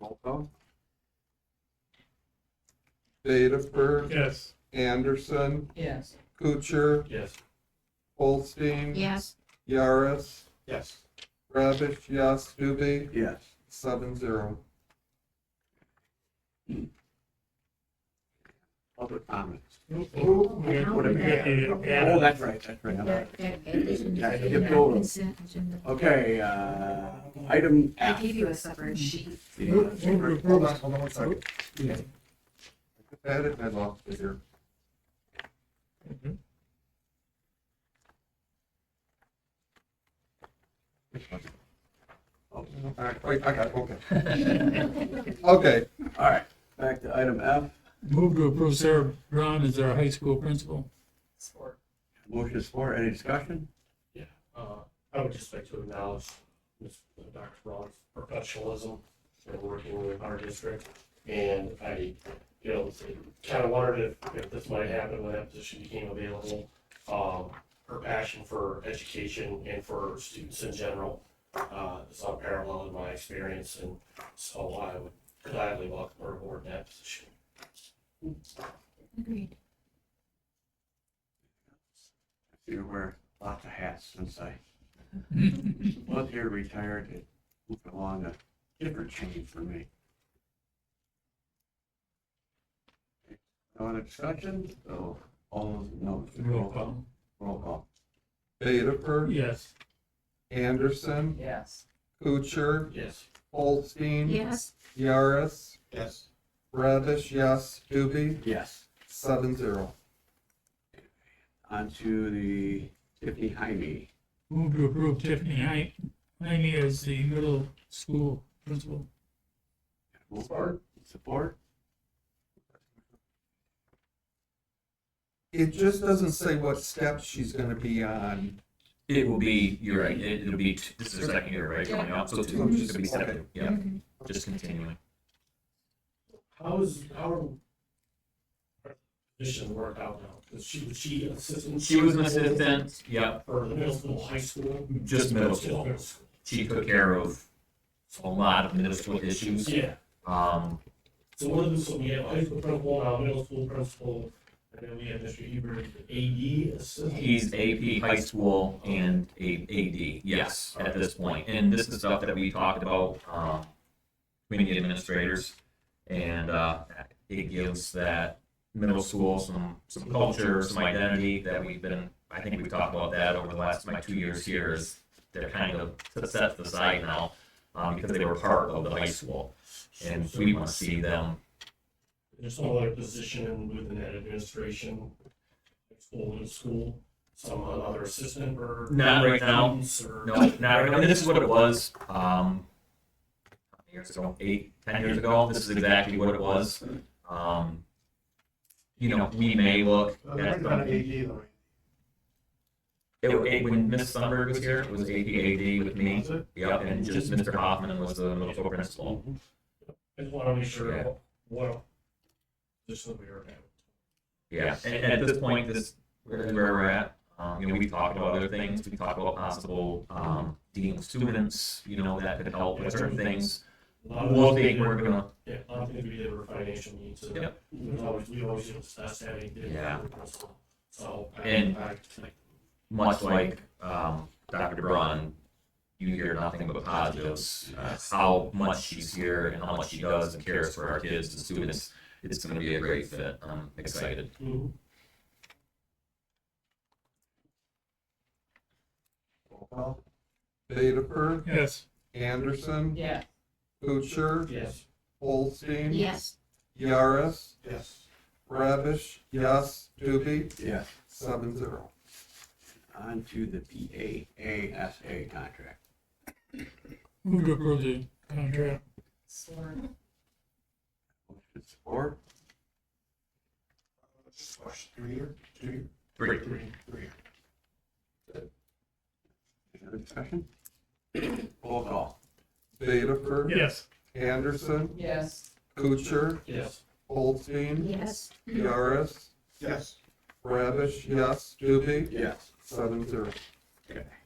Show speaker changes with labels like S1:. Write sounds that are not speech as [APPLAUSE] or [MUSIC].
S1: Roll call. Vederford,
S2: Yes.
S1: Anderson,
S3: Yes.
S1: Kucher,
S2: Yes.
S1: Holstein.
S4: Yes.
S1: Yaris,
S2: Yes.
S1: Rabish, yes, Stube,
S2: Yes.
S1: seven zero.
S2: Public comments.
S3: Who-
S2: We got- we got the
S3: Yeah.
S2: add- Oh, that's right, that's right. I'm
S4: That-
S2: sorry.
S4: that- that isn't-
S2: Yeah, I skipped over.
S4: Consent agenda.
S2: Okay, uh, item
S4: I
S2: F. Oh,
S4: gave you a separate sheet.
S2: the-
S5: Hold on, hold on one second.
S1: I had it, I lost it here.
S2: Oh,
S1: All right, wait, I got it, okay. Okay,
S2: All right, back to item F.
S6: Move to approve Sarah Brown as our high school principal.
S3: Sport.
S2: Motion is for, any discussion?
S7: Uh, I would just like to acknowledge Ms. Dr. Braun's professionalism in working with our district. And I, you know, kind of wondered if, if this might happen when that position became available. Um, her passion for education and for students in general, uh, is unparalleled in my experience. And so I would gladly welcome her aboard in that position.
S4: Agreed.
S2: You wear lots of hats since I was here retired and moved along a different change for me. No other discussion? So all those, no,
S6: Roll call.
S2: Roll call.
S1: Vederford,
S6: Yes.
S1: Anderson,
S3: Yes.
S1: Kucher,
S7: Yes.
S1: Holstein,
S4: Yes.
S1: Yaris,
S2: Yes.
S1: Rabish, yes, Stube,
S2: Yes.
S1: seven zero.
S2: On to the Tiffany Jaime.
S6: Move to approve Tiffany Hei- Heine as the middle school principal.
S2: Move forward. Support?
S1: It just doesn't say what step she's gonna be on.
S8: It will be, you're right, it- it'll be, t- this is her second year, right, coming up, so two, just gonna be step two, yeah,
S4: Mhm.
S8: just continuing.
S7: How is, how are her position worked out now? Because she, was she assistant?
S8: She was an assistant, yep,
S7: For the middle school, high school?
S8: just middle school, she took care of a lot of middle school issues,
S7: Yeah,
S8: um,
S7: so what is, so we have high school principal, now middle school principal, and then we have Mr. Huber, as the AD assistant.
S8: He's AP high school and a AD, yes, at this point. And this is stuff that we talked about, um, between the administrators. And, uh, it gives that middle school some, some culture, some identity that we've been, I think we've talked about that over the last, my two years here is they're kind of set to the side now, um, because they were part of the high school. And we want to see them
S7: There's some other position within that administration, high school, middle school, some other assistant or.
S8: Not right now.
S7: students Or.
S8: No, not right now. I mean, this is what it was. Um, years ago, eight, ten years ago, this is exactly what it was. Um, you know, we may look at something.
S5: though.
S8: It, it, when Miss Sunberg was here, it was AP AD with me. Yep, and just Mr. Hoffman was the middle school principal.
S7: I just want to make sure
S8: Yeah.
S7: what- what position we are at.
S8: Yeah, and, and at this point, this where where we're at. Um, you know, we talked about other things. We talked about possible um, dealing with students. You know, that could help with certain things.
S7: A lot of
S8: We'll
S7: things
S8: think
S7: we
S8: we're
S7: did-
S8: gonna.
S7: Yeah, a lot of things we did were financial needs, so
S8: Yep.
S7: we always, we always discussed having. different
S8: Yeah.
S7: proposals. So. I-
S8: And-
S7: I-
S8: much like um, Dr. DeBron, you hear nothing but positives. Uh, how much she's here and how much she does and cares for our kids and students. It's going to be a great fit. I'm excited.
S7: Mhm.
S1: Vederford,
S6: Yes.
S1: Anderson,
S3: Yeah.
S1: Kucher,
S7: Yes.
S1: Holstein.
S4: Yes.
S1: Yaris,
S7: Yes.
S1: Rabish, yes, Stube,
S2: Yes.
S1: seven zero.
S2: On to the PAASA contract.
S6: Move to approve the contract.
S3: Sport.
S2: Motion support?
S5: Three year, two year.
S8: Great.
S2: Any other discussion? [CLEARS THROAT] Roll call.
S1: Vederford,
S6: Yes.
S1: Anderson,
S3: Yes.
S1: Kucher,
S7: Yes.
S1: Holstein,
S4: Yes.
S1: Yaris,
S5: Yes.
S1: Rabish, yes, Stube,
S2: Yes.
S1: seven zero.
S2: Okay.